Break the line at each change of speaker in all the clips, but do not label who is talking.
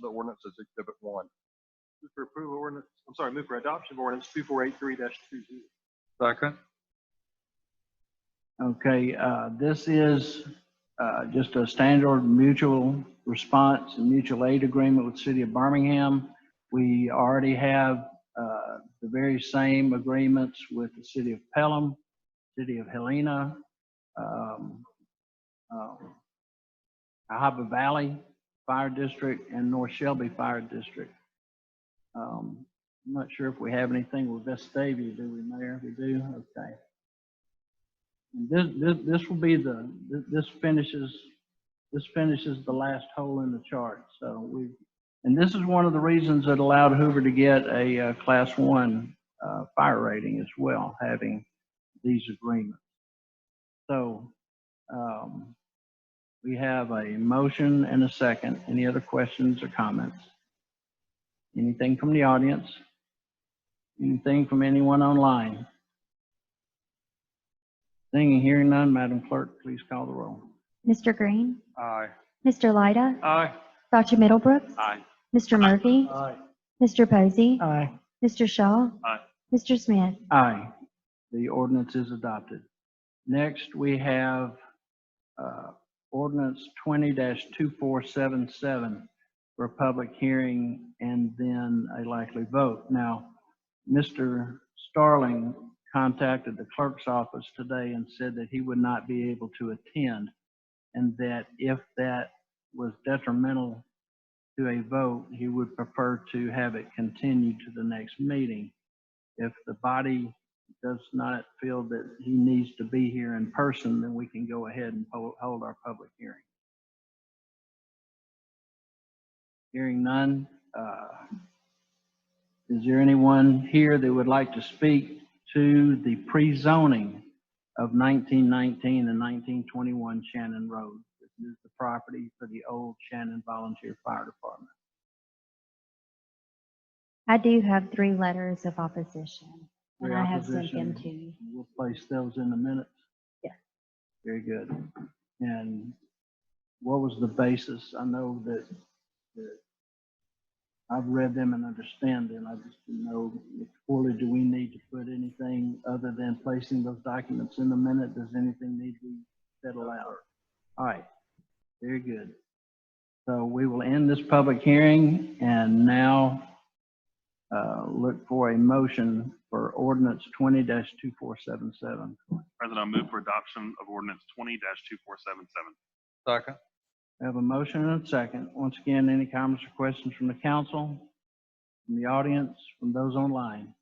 the ordinance as exhibit one. Move for approval ordinance, I'm sorry, move for adoption of ordinance two four eight three dash two zero.
Second.
Okay, uh, this is uh, just a standard mutual response and mutual aid agreement with City of Birmingham. We already have uh, the very same agreements with the City of Pelham, City of Helena, um, um, Cahaba Valley Fire District, and North Shelby Fire District. Um, I'm not sure if we have anything with Vestavia, do we, Mayor? We do? Okay. This, this, this will be the, thi- this finishes, this finishes the last hole in the chart, so we, and this is one of the reasons that allowed Hoover to get a, uh, class one, uh, fire rating as well, having these agreements. So, um, we have a motion and a second. Any other questions or comments? Anything from the audience? Anything from anyone online? Seeing and hearing none, Madam Clerk, please call the roll.
Mr. Green,
Aye.
Mr. Lyda,
Aye.
Dr. Middlebrooks,
Aye.
Mr. Murphy,
Aye.
Mr. Posey,
Aye.
Mr. Shaw,
Aye.
Mr. Smith.
Aye. The ordinance is adopted. Next, we have uh, ordinance 20-2477 for a public hearing and then a likely vote. Now, Mr. Starling contacted the clerk's office today and said that he would not be able to attend and that if that was detrimental to a vote, he would prefer to have it continued to the next meeting if the body does not feel that he needs to be here in person, then we can go ahead and ho- hold our public hearing. Hearing none, uh, is there anyone here that would like to speak to the pre-zoning of 1919 and 1921 Shannon Road? This is the property for the old Shannon Volunteer Fire Department.
I do have three letters of opposition, and
Your
I have sent
opposition-
them to you.
We'll place those in the minutes?
Yeah.
Very good. And what was the basis? I know that, that I've read them and understand them. I just didn't know, if fully, do we need to put anything other than placing those documents in the minute? Does anything need to be settled out? All right, very good. So we will end this public hearing and now uh, look for a motion for ordinance twenty two four seven seven.
President, I move for adoption of ordinance twenty two four seven seven.
Second.
I have a motion and a second. Once again, any comments or questions from the council, from the audience, from those online?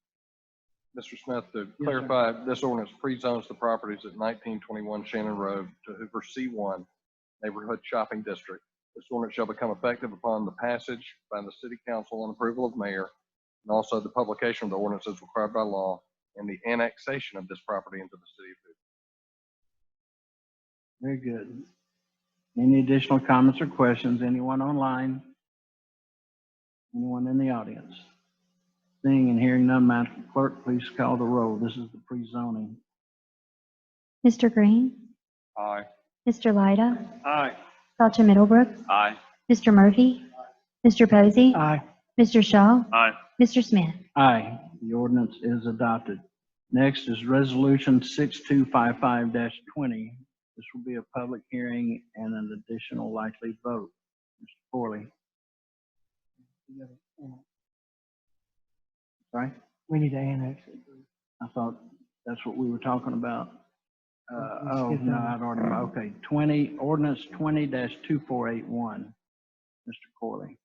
Mr. Smith, to
sir.
clarify, this ordinance pre-zones the properties at 1921 Shannon Road to Hoover C1 Neighborhood Shopping District. This ordinance shall become effective upon the passage by the city council and approval of mayor, and also the publication of the ordinance as required by law and the annexation of this property into the city of Hoover.
Very good. Any additional comments or questions? Anyone online? Anyone in the audience? Seeing and hearing none, Madam Clerk, please call the roll. This is the pre-zoning.
Mr. Green,
Aye.
Mr. Lyda,
Aye.
Dr. Middlebrooks,
Aye.
Mr. Murphy, Mr. Posey,
Aye.
Mr. Shaw,
Aye.
Mr. Smith.
Aye, the ordinance is adopted. Next is Resolution 6255-20. This will be a public hearing and an additional likely vote. Mr. Corley. Sorry?
We need to annex it.
I thought that's what we were talking about. Uh,
We
Oh,
skipped
no,
over.
I'd already, okay, 20, ordinance 20-2481. Mr. Corley.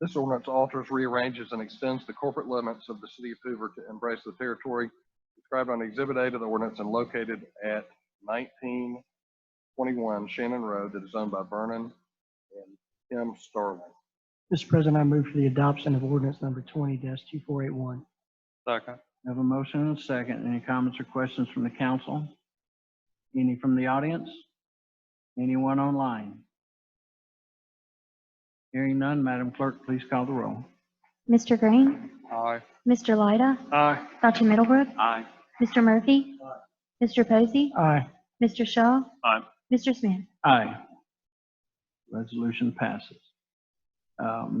This ordinance alters, rearranges, and extends the corporate limits of the city of Hoover to embrace the territory described on Exhibit A to the ordinance and located at nineteen twenty-one Shannon Road that is owned by Vernon and Tim Starling.
Mr. President, I move for the adoption of ordinance number twenty two four eight one.
Second.
Have a motion and a second. Any comments or questions from the council? Any from the audience? Anyone online? Hearing none, Madam Clerk, please call the roll.
Mr. Green,
Aye.
Mr. Lyda,
Aye.
Dr. Middlebrooks,
Aye.
Mr. Murphy, Mr. Posey,
Aye.
Mr. Shaw,
Aye.
Mr. Smith.
Aye. Resolution passes. Um,